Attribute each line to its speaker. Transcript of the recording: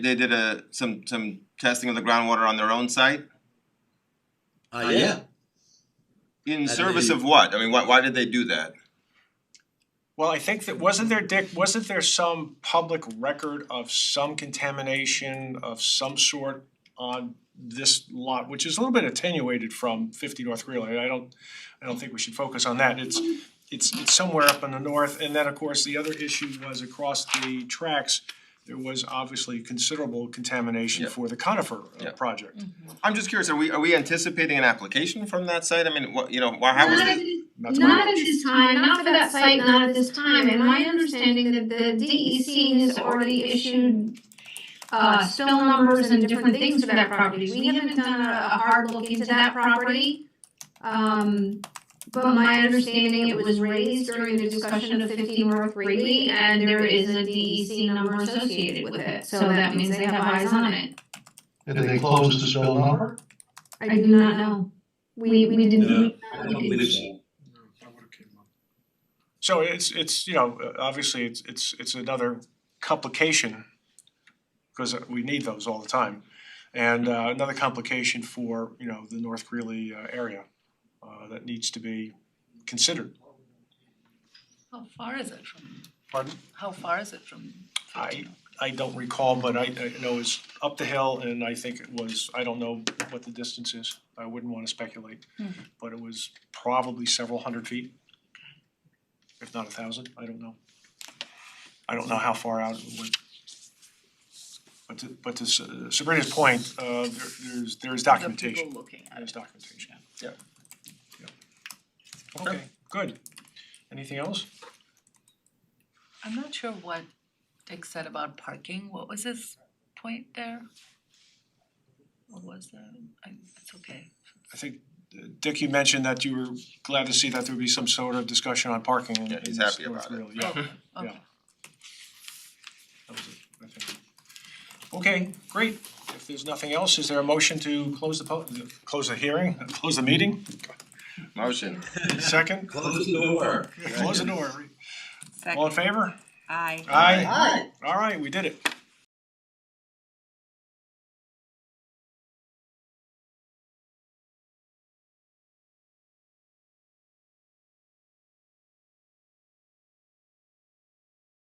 Speaker 1: they did a some some testing of the groundwater on their own site
Speaker 2: Uh, yeah,
Speaker 1: in
Speaker 2: And
Speaker 1: service
Speaker 2: they-
Speaker 1: of what? I mean, why why did they do that?
Speaker 3: Well, I think that, wasn't there, Dick, wasn't there some public record of some contamination of some sort on this lot, which is a little bit attenuated from fifty North Greeley, I don't, I don't think we should focus on that, it's, it's, it's somewhere up in the north, and then, of course, the other issue was across the tracks, there was obviously considerable contamination
Speaker 1: Yeah.
Speaker 3: for the conifer uh,
Speaker 1: Yeah.
Speaker 3: project.
Speaker 1: I'm just curious, are we are we anticipating an application from that site? I mean, what, you know, why how was
Speaker 4: Not at
Speaker 1: it?
Speaker 4: this-
Speaker 3: That's
Speaker 4: Not
Speaker 3: my-
Speaker 4: at this time, not for that site, not at this time, and my understanding that the DEC has already issued uh spill numbers and different things for that property, we haven't done a a hard look into that property. Um but my understanding, it was raised during the discussion of fifty North Greeley and there is a DEC number associated with it, so that means they have eyes on it.
Speaker 5: Did they close the spill number?
Speaker 4: I do not know, we we didn't.
Speaker 2: I don't believe so.
Speaker 3: So it's it's, you know, uh, obviously it's it's it's another complication because we need those all the time. And uh another complication for, you know, the North Greeley uh, area uh that needs to be considered.
Speaker 6: How far is it from,
Speaker 3: Pardon?
Speaker 6: how far is it from
Speaker 3: I
Speaker 6: fifteen?
Speaker 3: I don't recall, but I I know it's up the hill and I think it was, I don't know what the distance is. I wouldn't wanna speculate,
Speaker 6: Mhm.
Speaker 3: but it was probably several hundred feet. If not a thousand, I don't know. I don't know how far out it went. But to but to S- uh, Sabrina's point, uh there there's there's
Speaker 6: The people
Speaker 3: documentation,
Speaker 6: looking at
Speaker 3: there's
Speaker 6: it.
Speaker 3: documentation, yeah. Yeah. Okay, good. Anything else?
Speaker 6: I'm not sure what Dick said about parking, what was his point there? What was that, I, it's okay,
Speaker 3: I think, uh, Dick, you mentioned that you were glad to see that there would be some sort of discussion on parking in
Speaker 1: Yeah,
Speaker 3: in
Speaker 1: he's
Speaker 3: North
Speaker 1: happy about it.
Speaker 3: Greeley.
Speaker 6: oh, okay.
Speaker 3: that was it, I think. Okay, great, if there's nothing else, is there a motion to close the po- the- close the hearing, close the meeting,
Speaker 1: Motion.
Speaker 3: second?
Speaker 2: close the door.
Speaker 3: Close the door, all in
Speaker 7: Second.
Speaker 3: favor?
Speaker 7: Aye.
Speaker 3: Aye. Alright, we did it.